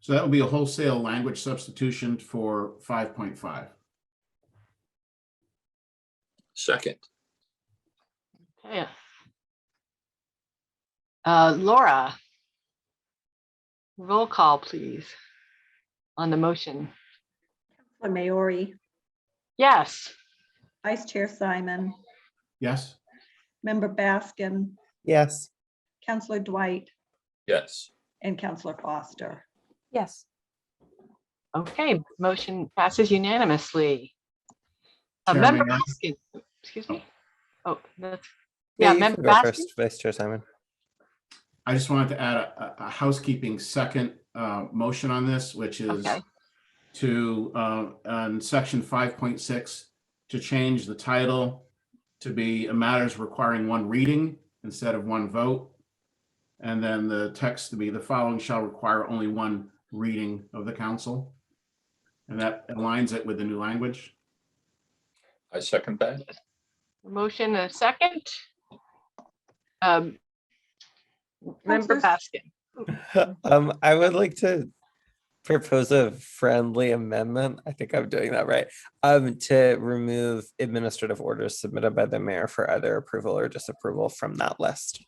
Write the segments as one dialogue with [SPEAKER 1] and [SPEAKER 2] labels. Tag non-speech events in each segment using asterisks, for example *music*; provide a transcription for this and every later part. [SPEAKER 1] So that would be a wholesale language substitution for five point five.
[SPEAKER 2] Second,
[SPEAKER 3] Okay. Uh, Laura. Roll call, please. On the motion.
[SPEAKER 4] Counselor Maori,
[SPEAKER 3] Yes,
[SPEAKER 4] Vice Chair Simon,
[SPEAKER 1] Yes,
[SPEAKER 4] Member Baskin,
[SPEAKER 5] yes,
[SPEAKER 4] Counselor Dwight,
[SPEAKER 2] yes,
[SPEAKER 4] and Counselor Foster.
[SPEAKER 6] Yes.
[SPEAKER 3] okay, motion passes unanimously. Uh,
[SPEAKER 1] Chairman,
[SPEAKER 3] Member
[SPEAKER 1] I-
[SPEAKER 3] Baskin, excuse me. Oh, that's,
[SPEAKER 5] Yeah,
[SPEAKER 3] yeah,
[SPEAKER 5] you can
[SPEAKER 3] Member
[SPEAKER 5] go
[SPEAKER 3] Baskin,
[SPEAKER 5] first, Vice Chair Simon. *laughs*
[SPEAKER 1] I just wanted to add a, a- a housekeeping second uh, motion on this, which is
[SPEAKER 3] Okay.
[SPEAKER 1] to, uh, on section five point six, to change the title to be a matters requiring one reading instead of one vote. And then the text to be the following shall require only one reading of the council. And that aligns it with the new language.
[SPEAKER 2] I second that.
[SPEAKER 3] motion a second. Um, Member
[SPEAKER 4] Counselors-
[SPEAKER 3] Baskin,
[SPEAKER 5] Um, I would like to propose a friendly amendment. I think I'm doing that right. Um, to remove administrative orders submitted by the mayor for either approval or disapproval from that list.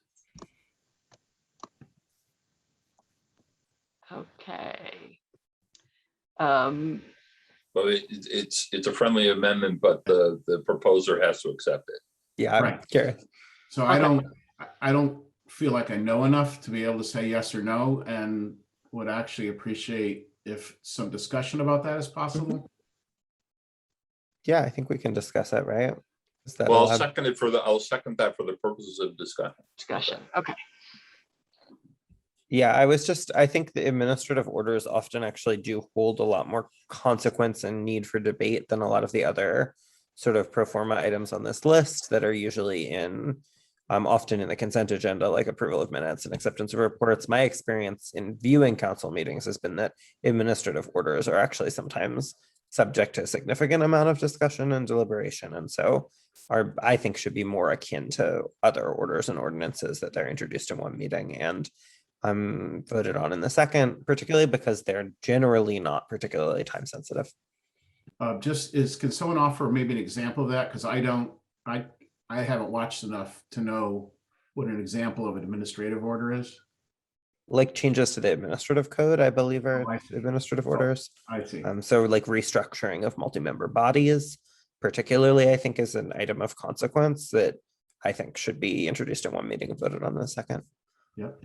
[SPEAKER 3] okay. Um,
[SPEAKER 2] Well, it, it's, it's a friendly amendment, but the, the proposer has to accept it.
[SPEAKER 5] Yeah, I'm
[SPEAKER 1] Right.
[SPEAKER 5] curious.
[SPEAKER 1] So I
[SPEAKER 3] Okay.
[SPEAKER 1] don't, I- I don't feel like I know enough to be able to say yes or no and would actually appreciate if some discussion about that is possible.
[SPEAKER 5] Yeah, I think we can discuss it, right? Is that
[SPEAKER 2] Well, I'll
[SPEAKER 5] allowed?
[SPEAKER 2] second it for the, I'll second that for the purposes of discussion.
[SPEAKER 3] discussion, okay.
[SPEAKER 5] Yeah, I was just, I think the administrative orders often actually do hold a lot more consequence and need for debate than a lot of the other sort of pro forma items on this list that are usually in, um, often in the consent agenda, like approval of minutes and acceptance of reports. My experience in viewing council meetings has been that administrative orders are actually sometimes subject to a significant amount of discussion and deliberation, and so are, I think, should be more akin to other orders and ordinances that they're introduced in one meeting and um voted on in the second, particularly because they're generally not particularly time sensitive.
[SPEAKER 1] Uh, just is, can someone offer maybe an example of that? Because I don't, I, I haven't watched enough to know what an example of an administrative order is.
[SPEAKER 5] Like changes to the administrative code, I believe are
[SPEAKER 1] I see.
[SPEAKER 5] administrative
[SPEAKER 1] Oh.
[SPEAKER 5] orders.
[SPEAKER 1] I see.
[SPEAKER 5] Um, so like restructuring of multi-member bodies, particularly, I think is an item of consequence that I think should be introduced in one meeting and voted on in the second.
[SPEAKER 1] Yep.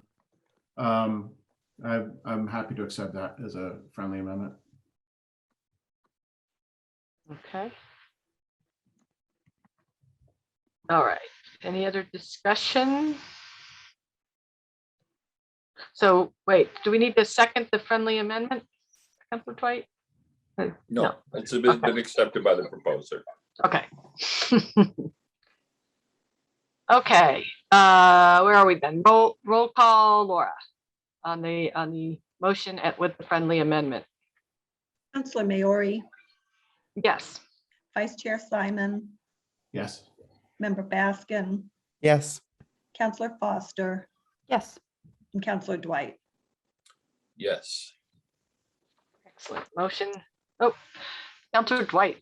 [SPEAKER 1] Um, I, I'm happy to accept that as a friendly amendment.
[SPEAKER 3] Okay. All right, any other discussion? So wait, do we need to second the friendly amendment? Counselor Dwight?
[SPEAKER 2] No, it's been, been accepted by the proposer.
[SPEAKER 3] Okay. *laughs* Okay, uh, where are we then? Roll, roll call Laura on the, on the motion at with the friendly amendment.
[SPEAKER 4] Counselor Maori,
[SPEAKER 3] Yes,
[SPEAKER 4] Vice Chair Simon,
[SPEAKER 1] Yes,
[SPEAKER 4] Member Baskin,
[SPEAKER 5] Yes,
[SPEAKER 4] Counselor Foster,
[SPEAKER 6] Yes.
[SPEAKER 4] and Counselor Dwight.
[SPEAKER 2] Yes.
[SPEAKER 3] excellent. Motion, oh, Counselor Dwight.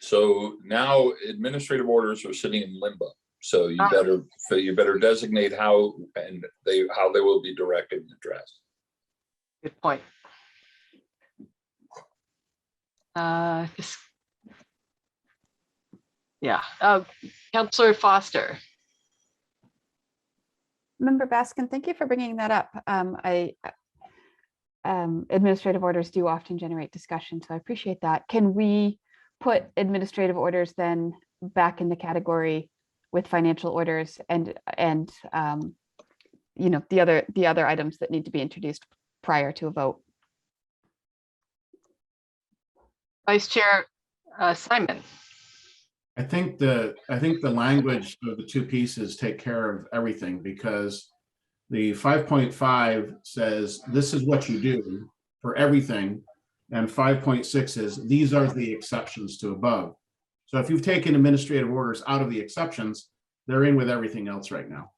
[SPEAKER 2] So now administrative orders are sitting in limbo. So you
[SPEAKER 3] Ah.
[SPEAKER 2] better, so you better designate how and they, how they will be directed and addressed.
[SPEAKER 3] Good point. Uh, this- Yeah, uh, Counselor Foster,
[SPEAKER 6] Member Baskin, thank you for bringing that up. Um, I uh, um, administrative orders do often generate discussion, so I appreciate that. Can we put administrative orders then back in the category with financial orders and, and, um, you know, the other, the other items that need to be introduced prior to a vote?
[SPEAKER 3] Vice Chair uh, Simon.
[SPEAKER 1] I think the, I think the language of the two pieces take care of everything because the five point five says, this is what you do for everything. And five point six is, these are the exceptions to above. So if you've taken administrative orders out of the exceptions, they're in with everything else right now.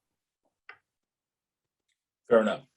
[SPEAKER 2] Fair enough.